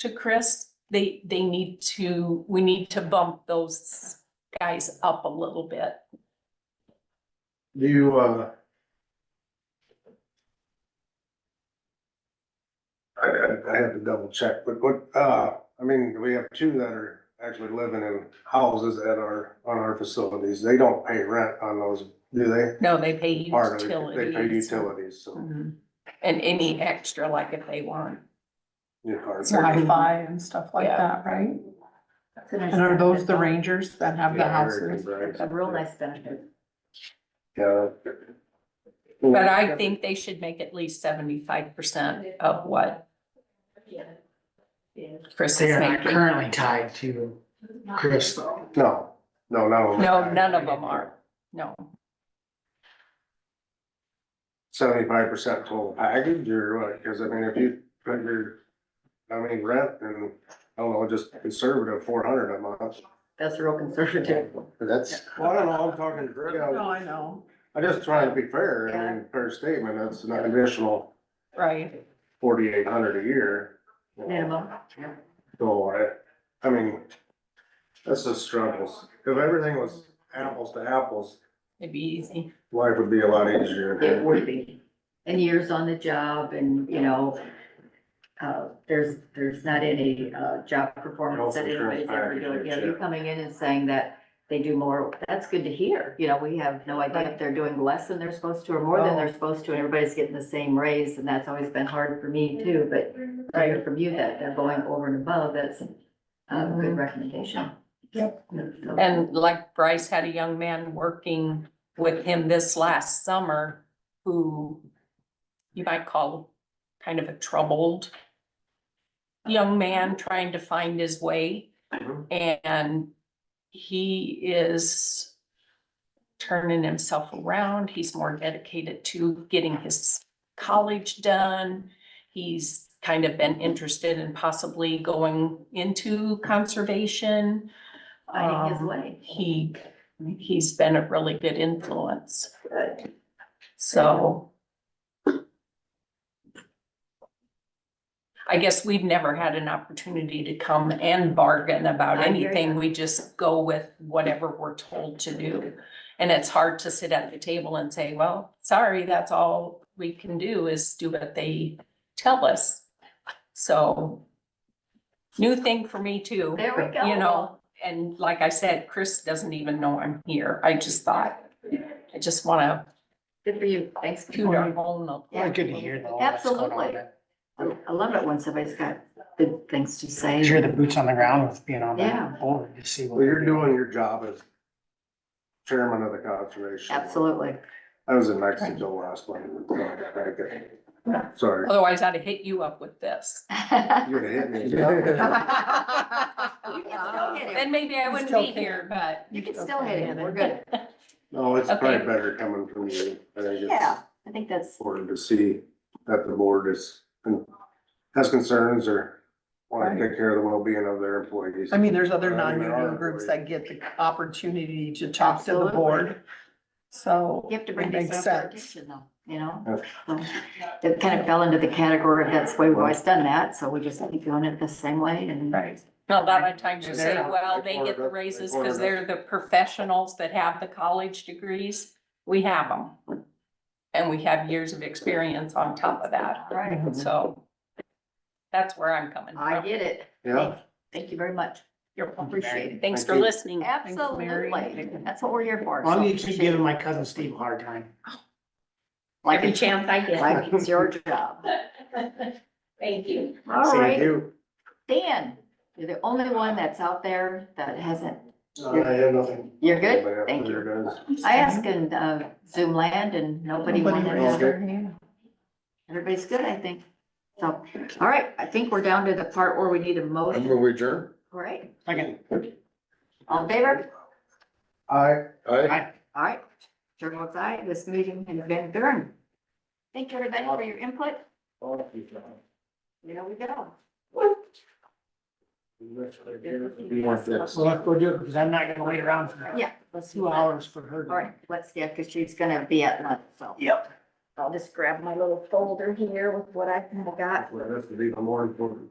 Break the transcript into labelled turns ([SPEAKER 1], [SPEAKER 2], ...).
[SPEAKER 1] to Chris, they, they need to, we need to bump those guys up a little bit.
[SPEAKER 2] Do you, uh? I, I, I have to double check, but what, uh, I mean, we have two that are actually living in houses at our, on our facilities. They don't pay rent on those, do they?
[SPEAKER 1] No, they pay
[SPEAKER 2] Part of it, They pay
[SPEAKER 1] utilities.
[SPEAKER 2] utilities, so.
[SPEAKER 1] Mhm. And any extra like if they want.
[SPEAKER 2] you know, our-
[SPEAKER 3] Wi-Fi and stuff like
[SPEAKER 1] Yeah.
[SPEAKER 3] that, right? And are those the rangers that have the
[SPEAKER 2] Yeah, American
[SPEAKER 3] houses?
[SPEAKER 2] Brides.
[SPEAKER 4] A real nice benefit.
[SPEAKER 2] Yeah.
[SPEAKER 1] But I think they should make at least seventy-five percent of what
[SPEAKER 4] Yeah. Yeah.
[SPEAKER 1] Chris
[SPEAKER 5] They
[SPEAKER 1] is
[SPEAKER 5] are not
[SPEAKER 1] making.
[SPEAKER 5] currently tied to Chris though.
[SPEAKER 2] No, no, no.
[SPEAKER 1] No, none of them are. No,
[SPEAKER 2] Seventy-five percent total package or what? Cause I mean, if you put your, I mean, rent and, I don't know, just conservative four hundred a month.
[SPEAKER 4] That's real conservative.
[SPEAKER 2] That's, well, I don't know, I'm talking, you know,
[SPEAKER 3] No, I know.
[SPEAKER 2] I'm just trying to be fair, I mean, fair statement, that's an additional
[SPEAKER 1] right.
[SPEAKER 2] forty-eight hundred a year. you know.
[SPEAKER 4] Minimum.
[SPEAKER 2] So I, I mean, that's just struggles. If everything was apples to apples,
[SPEAKER 1] It'd be easy.
[SPEAKER 2] life would be a lot easier.
[SPEAKER 4] It would be. And years on the job and, you know, uh, there's, there's not any, uh, job performance that anybody's ever doing. You know, you're coming in and saying that they do more, that's good to hear. You know, we have no idea if they're doing less than they're supposed to or more than they're supposed to. and Everybody's getting the same raise and that's always been hard for me too, but to hear from you that they're going over and above, that's a good
[SPEAKER 1] Mhm.
[SPEAKER 4] recommendation. Yep. And
[SPEAKER 1] And like Bryce had a young man working with him this last summer who you might call kind of a troubled young man trying to find his way.
[SPEAKER 2] Mhm.
[SPEAKER 1] And he is turning himself around. He's more dedicated to getting his college done. He's kind of been interested in possibly going into conservation.
[SPEAKER 4] finding his
[SPEAKER 1] Um,
[SPEAKER 4] way.
[SPEAKER 1] He, he's been a really good influence,
[SPEAKER 4] Good.
[SPEAKER 1] so. I guess we've never had an opportunity to come and bargain about
[SPEAKER 4] I hear
[SPEAKER 1] anything.
[SPEAKER 4] ya.
[SPEAKER 1] We just go with whatever we're told to do. And it's hard to sit at the table and say, well, sorry, that's all we can do is do what they tell us. So new thing for me too.
[SPEAKER 4] There we go.
[SPEAKER 1] you know, and like I said, Chris doesn't even know I'm here. I just thought, I just wanna
[SPEAKER 4] Good for you. Thanks.
[SPEAKER 1] toot our
[SPEAKER 2] Mm-hmm.
[SPEAKER 1] own. up.
[SPEAKER 4] Yeah.
[SPEAKER 5] Well, good to hear though. that's going on
[SPEAKER 4] Absolutely.
[SPEAKER 5] there.
[SPEAKER 4] I love it when somebody's got good things to say.
[SPEAKER 5] Hear the boots on the ground with being on
[SPEAKER 4] Yeah.
[SPEAKER 5] that board to see what.
[SPEAKER 2] Well, you're
[SPEAKER 5] they're
[SPEAKER 2] doing your job as chairman of the conservation.
[SPEAKER 4] Absolutely.
[SPEAKER 2] I was in Mexico last one. so I got- Sorry,
[SPEAKER 1] Otherwise I'd hit you up with this.
[SPEAKER 2] you would have hit me.
[SPEAKER 4] You can still hit
[SPEAKER 1] Then
[SPEAKER 4] him.
[SPEAKER 1] maybe I wouldn't
[SPEAKER 3] still
[SPEAKER 1] be here, but.
[SPEAKER 4] You can still hit him. We're good.
[SPEAKER 2] No, it's probably
[SPEAKER 1] Okay.
[SPEAKER 2] better coming from you. I think it's
[SPEAKER 4] Yeah, I think that's,
[SPEAKER 2] important to see that the board is, has concerns or want to take care of the well-being of their employees.
[SPEAKER 3] I mean, there's other
[SPEAKER 2] I mean, there
[SPEAKER 3] non-union
[SPEAKER 2] are
[SPEAKER 3] groups
[SPEAKER 2] really-
[SPEAKER 3] that get the opportunity to talk to the board. So
[SPEAKER 4] you have to bring
[SPEAKER 3] It makes
[SPEAKER 4] yourself to
[SPEAKER 3] sense.
[SPEAKER 4] attention though, you know?
[SPEAKER 2] Okay.
[SPEAKER 4] So, It kind of fell into the category of that's the way we've always done that, so we just keep doing it the same way and.
[SPEAKER 1] Right. Now, a lot of times you
[SPEAKER 2] They're
[SPEAKER 1] say,
[SPEAKER 2] not-
[SPEAKER 1] well,
[SPEAKER 2] they
[SPEAKER 1] they get the
[SPEAKER 2] cornered us. They
[SPEAKER 1] raises
[SPEAKER 2] cornered
[SPEAKER 1] because
[SPEAKER 2] us.
[SPEAKER 1] they're the professionals that have the college degrees. We have them. And we have years of experience on top of that,
[SPEAKER 4] All right,
[SPEAKER 2] Mm-hmm.
[SPEAKER 1] so that's where I'm coming
[SPEAKER 4] I
[SPEAKER 1] from.
[SPEAKER 4] get it.
[SPEAKER 2] Yeah,
[SPEAKER 4] Thank you very much.
[SPEAKER 1] You're welcome.
[SPEAKER 4] Appreciate it.
[SPEAKER 1] Thanks
[SPEAKER 2] Thank
[SPEAKER 1] for
[SPEAKER 2] you.
[SPEAKER 1] listening.
[SPEAKER 4] Absolutely. That's what we're here for.
[SPEAKER 5] Well,
[SPEAKER 4] so
[SPEAKER 5] you keep
[SPEAKER 4] appreciate
[SPEAKER 5] giving
[SPEAKER 4] it.
[SPEAKER 5] my cousin Steve a hard time.
[SPEAKER 4] Oh. Like
[SPEAKER 1] Every
[SPEAKER 4] it's-
[SPEAKER 1] chance I get.
[SPEAKER 4] Like it's your job.
[SPEAKER 1] Thank you.
[SPEAKER 4] All
[SPEAKER 2] thank
[SPEAKER 4] right,
[SPEAKER 2] you.
[SPEAKER 4] Dan, you're the only one that's out there that hasn't,
[SPEAKER 2] Uh, I have nothing.
[SPEAKER 4] you're good?
[SPEAKER 2] Anybody
[SPEAKER 4] Thank
[SPEAKER 2] else?
[SPEAKER 4] you.
[SPEAKER 2] There it is.
[SPEAKER 4] I asked in uh, Zoom land and nobody
[SPEAKER 3] Nobody
[SPEAKER 4] wanted
[SPEAKER 2] raised
[SPEAKER 4] to. Everybody's good, I think. So, all right, I think we're down to the part where we need a motion.
[SPEAKER 6] Move adjourn.
[SPEAKER 4] All right,
[SPEAKER 5] Second,
[SPEAKER 4] all in favor?
[SPEAKER 2] I,
[SPEAKER 5] I,
[SPEAKER 4] All right, chair votes aye. This meeting has been adjourned. Thank you, everybody, for your input. You know, we go.
[SPEAKER 5] well, let's go do it because I'm not gonna wait around for
[SPEAKER 4] Yeah, let's do
[SPEAKER 5] two
[SPEAKER 4] that.
[SPEAKER 5] hours for her. to-
[SPEAKER 4] All right, let's, yeah, because she's gonna be at lunch, so.
[SPEAKER 5] Yep.
[SPEAKER 4] I'll just grab my little folder here with what I have got.
[SPEAKER 2] Well, that's the more important.